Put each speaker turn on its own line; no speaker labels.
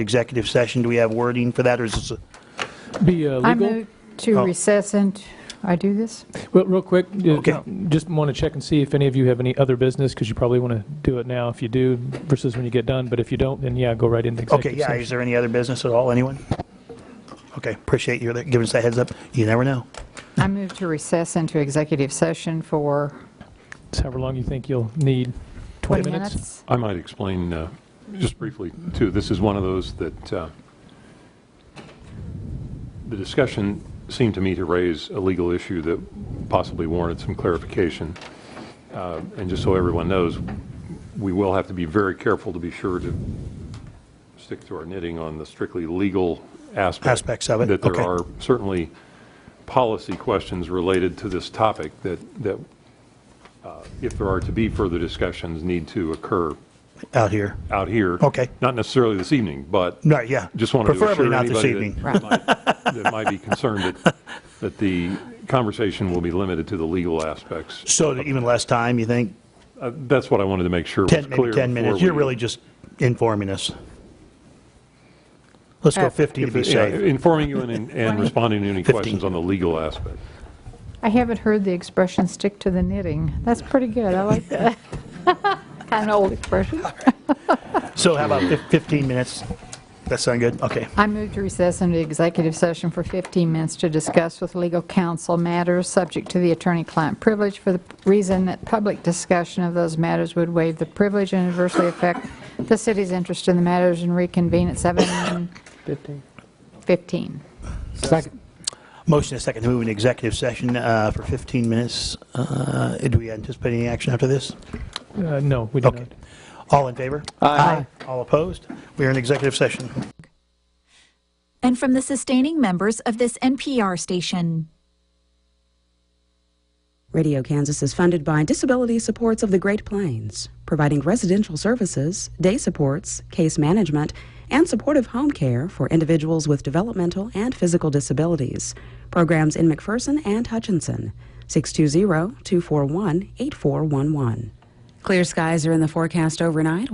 executive session. Do we have wording for that, or is this, a-
Be uh,
I
legal?
move to
Oh.
recess and, I do this?
Well, real quick, uh,
Okay.
just want to check and see if any of you have any other business, because you probably want to do it now if you do versus when you get done, but if you don't, then yeah, go right into
okay,
executive
yeah, is
session.
there any other business at all, anyone? Okay, appreciate you giving us that heads up. You never know.
I move to recess into executive session for
It's However long you think you'll need,
20
20 minutes?
minutes.
I might explain uh, just briefly, too. This is one of those that uh, the discussion seemed to me to raise a legal issue that possibly warranted some clarification. Uh, And just so everyone knows, we will have to be very careful to be sure to stick to our knitting on the strictly legal aspect.
Aspects of it,
That there
okay.
are certainly policy questions related to this topic that, that uh, if there are to be further discussions, need to occur
Out here.
out here.
Okay.
Not necessarily this evening, but
Right, yeah.
just wanted to assure
Preferably not this
anybody
evening.
that might- that might be concerned that, that the conversation will be limited to the legal aspects.
So even less time, you think?
Uh, That's what I wanted to make sure was
10,
clear.
maybe 10 minutes.
before
You're
we-
really just informing us. Let's go
Uh,
50 to be
Yeah,
safe.
Informing you and, and responding to any
15.
questions on the legal aspect.
I haven't heard the expression "stick to the knitting." That's pretty good, I like that. An old expression.
So how about fif- 15 minutes? That sound good? Okay.
I move to recess into executive session for 15 minutes to discuss with legal counsel matters subject to the attorney-client privilege for the reason that public discussion of those matters would waive the privilege and adversely affect the city's interest in the matters and reconvene at 7:15.
Second.
Motion is second to move into executive session uh, for 15 minutes. Uh, Do we anticipate any action after this?
Uh, No, we do
Okay.
not.
All in favor?
Aye.
All opposed? We are in executive session.
and from the sustaining members of this NPR station.
Radio Kansas is funded by Disability Supports of the Great Plains, providing residential services, day supports, case management, and supportive home care for individuals with developmental and physical disabilities. Programs in McPherson and Hutchinson, 620 241 8411. Clear skies are in the forecast overnight.